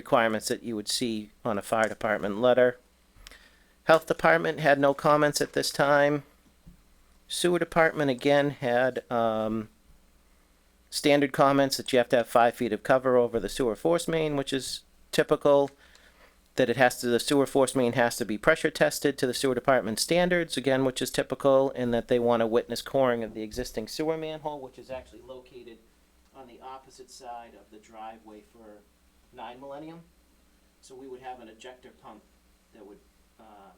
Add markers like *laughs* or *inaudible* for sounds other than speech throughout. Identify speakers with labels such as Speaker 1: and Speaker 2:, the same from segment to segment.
Speaker 1: requirements that you would see on a fire department letter. Health department had no comments at this time. Sewer department again had, um, standard comments that you have to have five feet of cover over the sewer force main, which is typical. That it has to, the sewer force main has to be pressure tested to the sewer department standards, again, which is typical, and that they want to witness coring of the existing sewer manhole, which is actually located on the opposite side of the driveway for nine millennium. So we would have an ejector pump that would uh,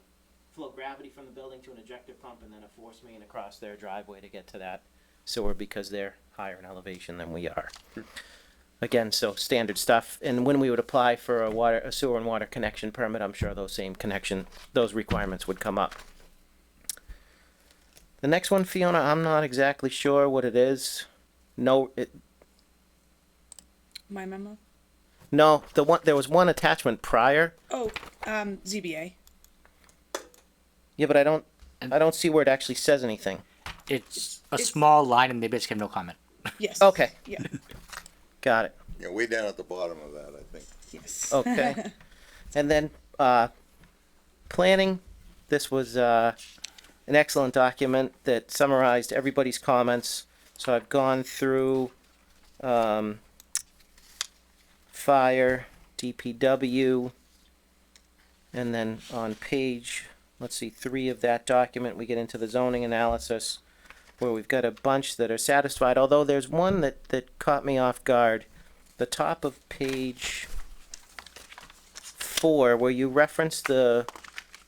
Speaker 1: flow gravity from the building to an ejector pump and then a force main across their driveway to get to that sewer because they're higher in elevation than we are. Again, so standard stuff. And when we would apply for a water, a sewer and water connection permit, I'm sure those same connection, those requirements would come up. The next one, Fiona, I'm not exactly sure what it is. No, it,
Speaker 2: My memo?
Speaker 1: No, the one there was one attachment prior.
Speaker 2: Oh, um, ZBA.
Speaker 1: Yeah, but I don't I don't see where it actually says anything.
Speaker 3: It's a
Speaker 2: It's-
Speaker 3: small line and they basically have no comment.
Speaker 2: Yes.
Speaker 1: Okay.
Speaker 2: Yeah,
Speaker 1: Got it.
Speaker 4: Yeah, way down at the bottom of that, I think.
Speaker 1: *laughs*
Speaker 2: yes.
Speaker 1: Okay. and then uh planning this was uh an excellent document that summarized everybody's comments. So I've gone through um fire, DPW, and then on page let's see, three of that document, we get into the zoning analysis where we've got a bunch that are satisfied, although there's one that, that caught me off guard. The top of page four, where you reference the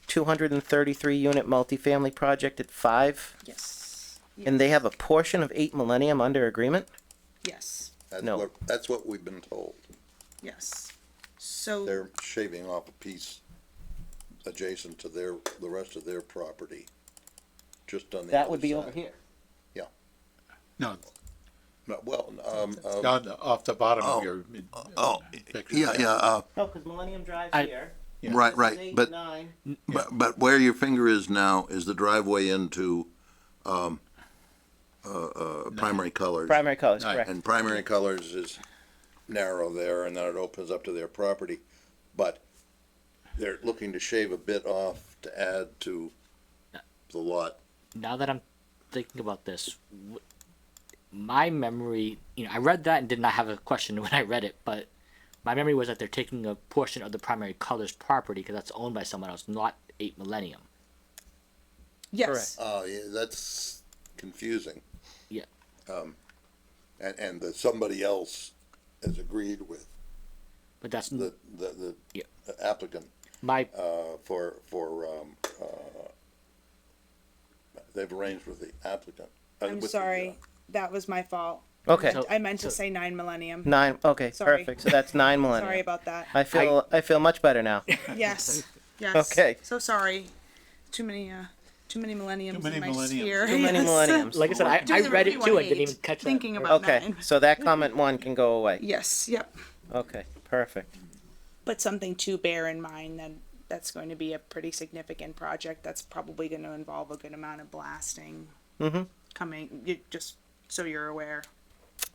Speaker 1: two hundred and thirty-three unit multifamily project at five,
Speaker 2: Yes.
Speaker 1: and they have a portion of eight millennium under agreement?
Speaker 2: Yes,
Speaker 4: That's
Speaker 1: No.
Speaker 4: what, that's what we've been told.
Speaker 2: yes. So,
Speaker 4: They're shaving off a piece adjacent to their, the rest of their property, just on the
Speaker 1: That would
Speaker 4: other
Speaker 1: be over
Speaker 4: side.
Speaker 1: here.
Speaker 5: No,
Speaker 4: No, Well, um, uh,
Speaker 5: down off the bottom
Speaker 4: Oh.
Speaker 5: of your. uh,
Speaker 4: oh,
Speaker 5: picture.
Speaker 4: yeah, yeah, uh,
Speaker 1: No, because Millennium Drive's
Speaker 3: I-
Speaker 1: here.
Speaker 4: right,
Speaker 1: This is
Speaker 4: right,
Speaker 1: eight,
Speaker 4: but,
Speaker 1: nine.
Speaker 4: but, but where your finger is now is the driveway into, um, uh, uh, primary colors.
Speaker 1: Primary colors,
Speaker 5: Right.
Speaker 1: correct.
Speaker 4: And primary colors is narrow there, and then it opens up to their property, but they're looking to shave a bit off to add to the lot.
Speaker 3: Now that I'm thinking about this, w- my memory, you know, I read that and did not have a question *laughs* when I read it, but my memory was that they're taking a portion of the primary colors property because that's owned by someone else, not 8 Millennium.
Speaker 2: yes,
Speaker 4: Oh, yeah, that's confusing.
Speaker 3: Yeah.
Speaker 4: And, and the somebody else has agreed with
Speaker 3: But that's
Speaker 4: the, the,
Speaker 3: Yeah.
Speaker 4: the applicant,
Speaker 3: my
Speaker 4: uh, for, for, um, uh, they've arranged with the applicant. uh,
Speaker 2: I'm
Speaker 4: with the, uh,
Speaker 2: sorry. That was my fault.
Speaker 1: Okay,
Speaker 3: So-
Speaker 2: I meant to
Speaker 3: so-
Speaker 2: say nine millennium.
Speaker 1: nine, okay,
Speaker 2: Sorry.
Speaker 1: perfect, so that's nine
Speaker 2: Sorry
Speaker 1: Millennium.
Speaker 2: about that.
Speaker 1: I feel, I feel much better now. *laughs*
Speaker 2: Yes, yes.
Speaker 1: Okay.
Speaker 2: So sorry. Too many, uh, too many millenniums
Speaker 5: many
Speaker 2: in my
Speaker 5: millenniums.
Speaker 2: sphere.
Speaker 1: Too many
Speaker 2: *laughs* Yes.
Speaker 1: Millenniums.
Speaker 3: like I said, I,
Speaker 2: Doing
Speaker 3: I
Speaker 2: the
Speaker 3: read it too. I didn't
Speaker 2: 51.8,
Speaker 3: even catch that.
Speaker 2: Thinking about
Speaker 1: Okay,
Speaker 2: nine.
Speaker 1: so that comment one can go away.
Speaker 2: Yes, yep.
Speaker 1: Okay, perfect.
Speaker 2: but something to bear in mind that that's going to be a pretty significant project that's probably going to involve a good amount of blasting coming you, just so you're aware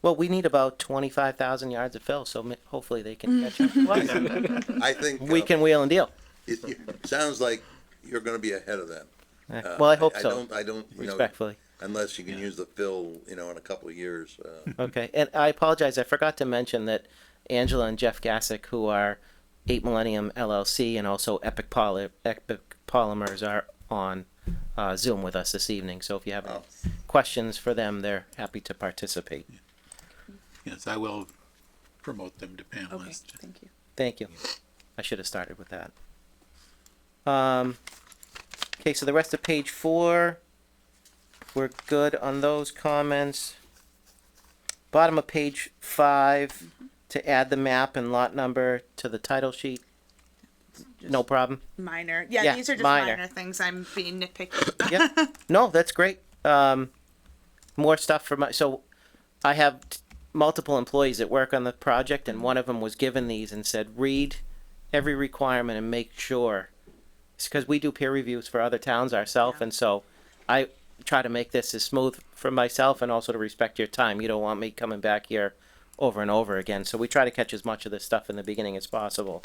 Speaker 1: Well, we need about twenty-five thousand yards of fill, so ma- hopefully they can catch up. to us.
Speaker 4: I think.
Speaker 1: We
Speaker 4: uh,
Speaker 1: can wheel and deal.
Speaker 4: It, it sounds like you're gonna be ahead of them.
Speaker 1: Eh, Well, I hope
Speaker 4: Uh, I
Speaker 1: so,
Speaker 4: don't, I don't, you know,
Speaker 1: respectfully.
Speaker 4: unless you can use the fill, you know, in a couple of years, uh,
Speaker 1: Okay, and I apologize, I forgot to mention that Angela and Jeff Gassick, who are Eight Millennium LLC and also Epic Poly, Epic Polymers are on uh, Zoom with us this evening, so if you have any questions for them, they're happy to participate.
Speaker 5: Yes, I will promote them to
Speaker 2: okay
Speaker 5: panelists.
Speaker 2: thank you
Speaker 1: Thank you. I should have started with that. Um, okay, so the rest of page four, we're good on those comments. Bottom of page five, to add the map and lot number to the title sheet. No problem.
Speaker 2: minor yeah,
Speaker 1: Yeah,
Speaker 2: these are just
Speaker 1: minor.
Speaker 2: minor. things i'm being nitpicky
Speaker 1: Yep. No, that's great. Um, more stuff for my, so I have t- multiple employees that work on the project and one of them was given these and said, read every requirement and make sure. It's because we do peer reviews for other towns ourselves
Speaker 2: Yeah.
Speaker 1: and so I try to make this as smooth for myself and also to respect your time. You don't want me coming back here over and over again. So we try to catch as much of this stuff in the beginning as possible.